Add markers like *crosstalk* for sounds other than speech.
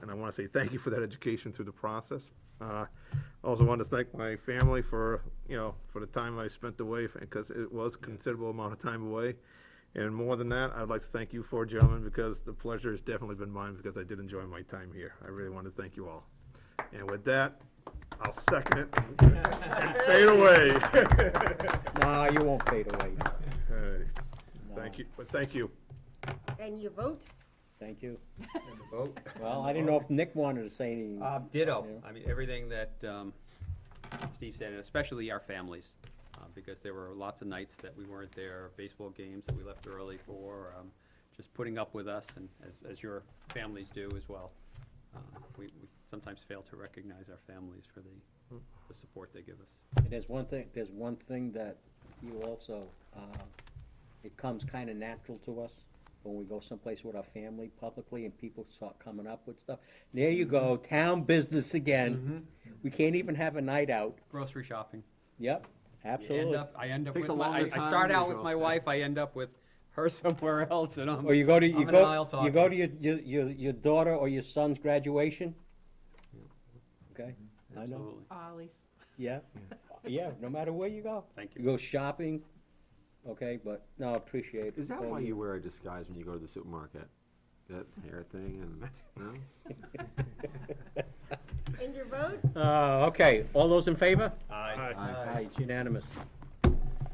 want to say thank you for that education through the process. Uh, Also want to thank my family for, you know, for the time I spent away, because it was considerable amount of time away. And more than that, I'd like to thank you four gentlemen, because the pleasure has definitely been mine, because I did enjoy my time here. I really want to thank you all. And with that, I'll second *laughs* it and fade away. *laughs* Nah, you won't fade away. All right. Thank you, but thank you. And you vote? Thank you. Vote. Well, I didn't know if Nick wanted to say anything. Uh, ditto. Yeah. I mean, everything that um, Steve said, and especially our families, uh, because there were lots of nights that we weren't there, baseball games that we left early for, um, just putting up with us, and as, as your families do as well. Uh, We, we sometimes fail to recognize our families for the, the support they give us. And There's one thing, there's one thing that you also, uh, it comes kinda natural to us when we go someplace with our family publicly and people start coming up with stuff. There you go, Mm-hmm. town business again. We can't even have a night out. Grocery shopping. Yep, You end absolutely. up, I end up Takes with, a my- I longer I time start than out with usual, my yeah. wife, I end up with her *laughs* somewhere else, and I'm, Or you go to, I'm you in an aisle go, you talking. go to your, your, your, your daughter or your son's graduation? Okay, I know, Absolutely. Ollie's. yeah, yeah, no matter where you go. Thank You you. go shopping, okay, but, no, appreciate it. Is that All why you wear a disguise when you go to the supermarket? That hair thing and no? And your vote? Uh, okay, all those in favor? Aye. Aye. Uh, Aye, it's unanimous.